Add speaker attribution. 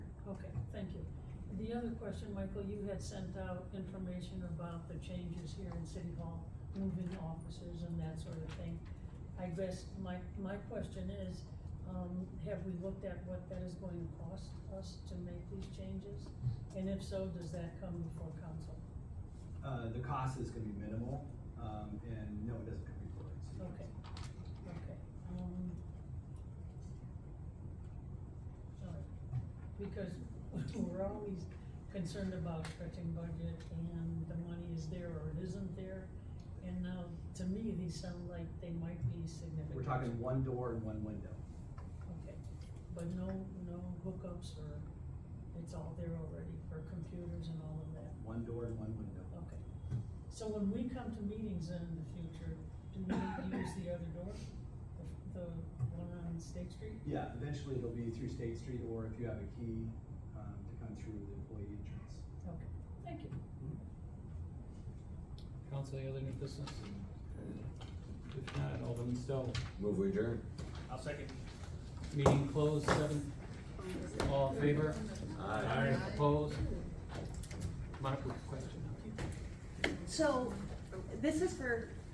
Speaker 1: the other question, Michael, you had sent out information about the changes here in City Hall, moving offices and that sort of thing. I guess my, my question is, um, have we looked at what that is going to cost us to make these changes? And if so, does that come before council?
Speaker 2: Uh, the cost is gonna be minimal, um, and no, it doesn't come before the city council.
Speaker 1: Okay. Okay, um. all right. Because we're always concerned about stretching budget and the money is there or it isn't there. And now, to me, these sound like they might be significant.
Speaker 2: We're talking one door and one window.
Speaker 1: Okay, but no, no hookups or, it's all there already for computers and all of that.
Speaker 2: One door and one window.
Speaker 1: Okay. So when we come to meetings in the future, do we use the other door? The, the one on State Street?
Speaker 2: Yeah, eventually it'll be through State Street, or if you have a key, um, to come through the employee entrance.
Speaker 1: Okay, thank you.
Speaker 3: Council, any other new business? If not, Alderman Stowe,
Speaker 4: Move we adjourn.
Speaker 5: I'll second.
Speaker 3: meeting closed, seven, all in favor?
Speaker 4: Aye.
Speaker 3: Opposed? Monica, question?
Speaker 6: So, this is for